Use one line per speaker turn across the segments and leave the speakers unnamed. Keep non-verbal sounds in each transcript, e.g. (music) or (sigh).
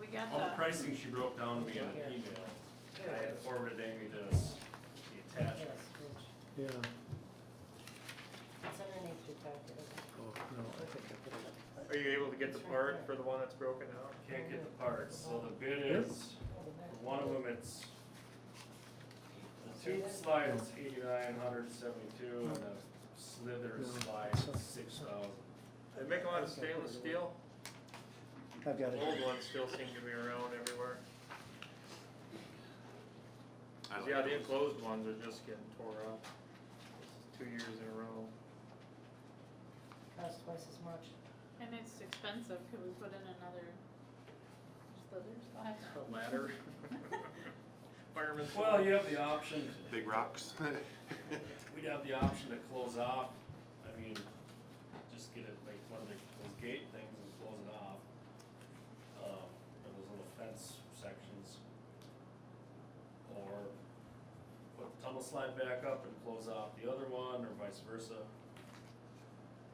we got
All the
the,
pricing she broke down to me in an email. I had forwarded Amy this, the attachment.
Yeah,
It's underneath your packet. okay.
oh, no, I think I put it up.
Are you able to get the part for the one that's broken out?
Can't get the parts, so the bid is, for one of them, it's the tube slide is eighty-nine hundred seventy-two and the slither slide is six thousand.
They make a lot of stainless steel.
I've got
Old
it.
ones still seem to be around everywhere. Yeah, the enclosed ones are just getting tore up. Two years in a row.
Costs twice as much.
and it's expensive, could we put in another slither slide?
A ladder. (laughs) Fireman's.
Well, you have the option,
Big rocks.
we'd have the option to close off, I mean, just get it like one of the- those gate things and close it off. Um, or those little fence sections. Or put the tunnel slide back up and close off the other one or vice versa.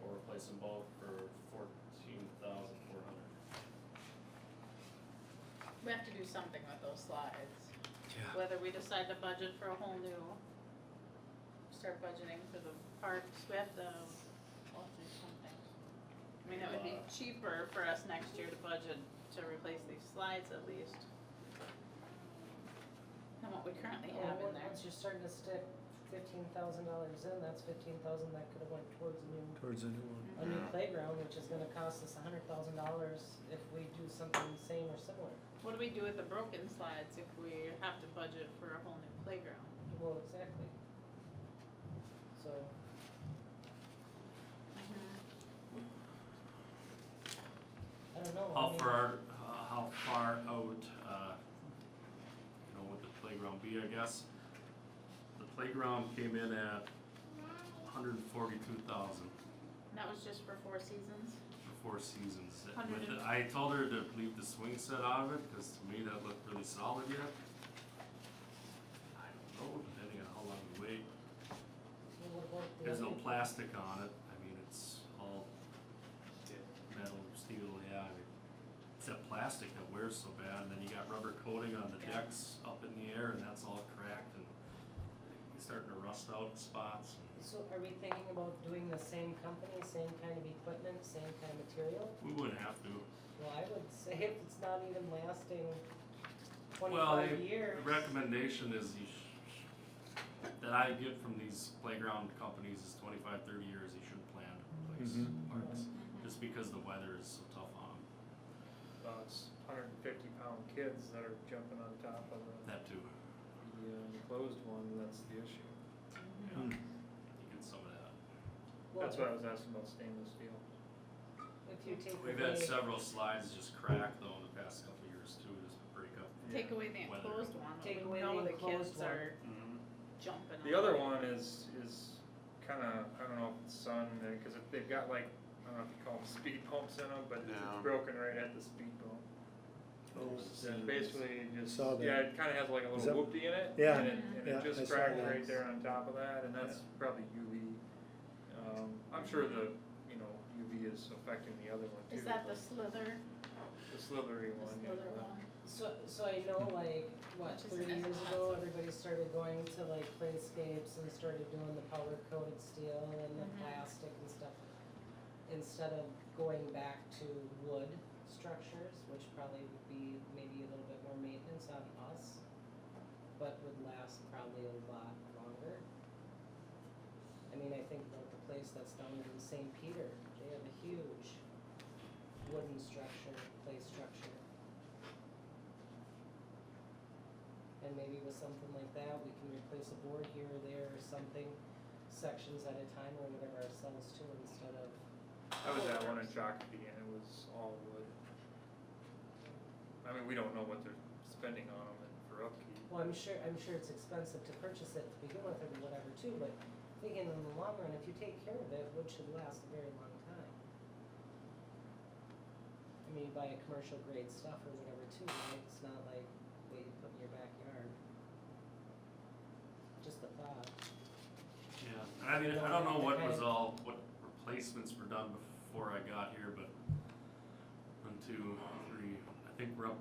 Or replace them both for fourteen thousand four hundred.
We have to do something with those slides, whether we decide to budget for a whole new, start budgeting for the parks, we have to, we'll do something. I mean, it would be
Uh,
cheaper for us next year to budget to replace these slides at least. Than what we currently have in there.
Once you're starting to stick fifteen thousand dollars in, that's fifteen thousand that could have went towards a new,
Towards a new one.
a new playground, which is gonna cost us a hundred thousand dollars if we do something the same or similar.
What do we do with the broken slides if we have to budget for a whole new playground?
Well, exactly. So, Mm-hmm. I don't know. I
How
mean,
far, uh, how far out, uh, you know, would the playground be, I guess? The playground came in at hundred and forty-two thousand
That was just for four seasons?
for four seasons. With
Hundred and-
the- I told her to leave the swing set out of it, cause to me that looked really solid yet. I don't know, depending on how long you wait,
we would've worked the
there's no
other-
plastic on it, I mean, it's all metal, steel, yeah, I mean, it's that plastic that wears so bad, and then you got rubber coating on the
Yeah.
decks up in the air, and that's all cracked, and it's starting to rust out in spots.
So are we thinking about doing the same company, same kind of equipment, same kind of material?
We wouldn't have to,
Well, I would say if it's not even lasting
Well,
twenty-five
they-
years.
the recommendation is you sh- that I get from these playground companies is 25, 30 years, you should plan to replace
Mhm.
parks,
Mm-hmm.
just because the weather is so tough on 'em.
Well, it's hundred and fifty pound kids that are jumping on top of the,
that too.
the uh, enclosed one, that's the issue.
Yeah.
Mm.
You get some of that.
Well,
That's what I was asking about stainless steel.
If you take
We've had
away-
several slides just crack though in the past couple of years too, just break up.
Take away the
Weather.
enclosed one,
Take
we
away
know
the
the kids
enclosed one.
are jumping on.
The other one is, is kinda, I don't know if it's sun, uh, cause if they've got like, I don't know if you call them speed bumps in them, but it's
No.
it's broken right at the speed bump.
Oh,
And basically it just,
Saw
yeah, it kinda has like a
Is
little
that-
whoopty in it,
Yeah,
and it, and
yeah,
it
I
just
saw
cracked
that.
right there on top of that, and that's probably UV. Um, I'm sure the, you know, UV is affecting the other one too.
Is that the
but
slither,
The slithery
the
one, yeah.
slither
but-
one?
So, so I know like, what,
Which is
thirty years ago,
expensive.
everybody started going to like playscapes and started doing the powder coated steel and the
Mhm.
plastic and stuff. Instead of going back to wood structures, which probably would be maybe a little bit more maintenance on us, but would last probably a lot longer. I mean, I think about the place that's down in St. Peter, they have a huge wooden structure, clay structure. And maybe with something like that, we can replace a board here or there or something, sections at a time or whatever ourselves too, instead of,
I was at one in Shakopee and it was all wood. I mean, we don't know what they're spending on them and for upkeep.
well, I'm sure, I'm sure it's expensive to purchase it to begin with or whatever too, but thinking in the long run, if you take care of it, wood should last a very long time. I mean, you buy a commercial grade stuff or whatever too, right? It's not like what you put in your backyard. Just the thought.
Yeah, and I mean, I don't know what was all, what replacements were done before I got here, but one, two, three, I think we're up to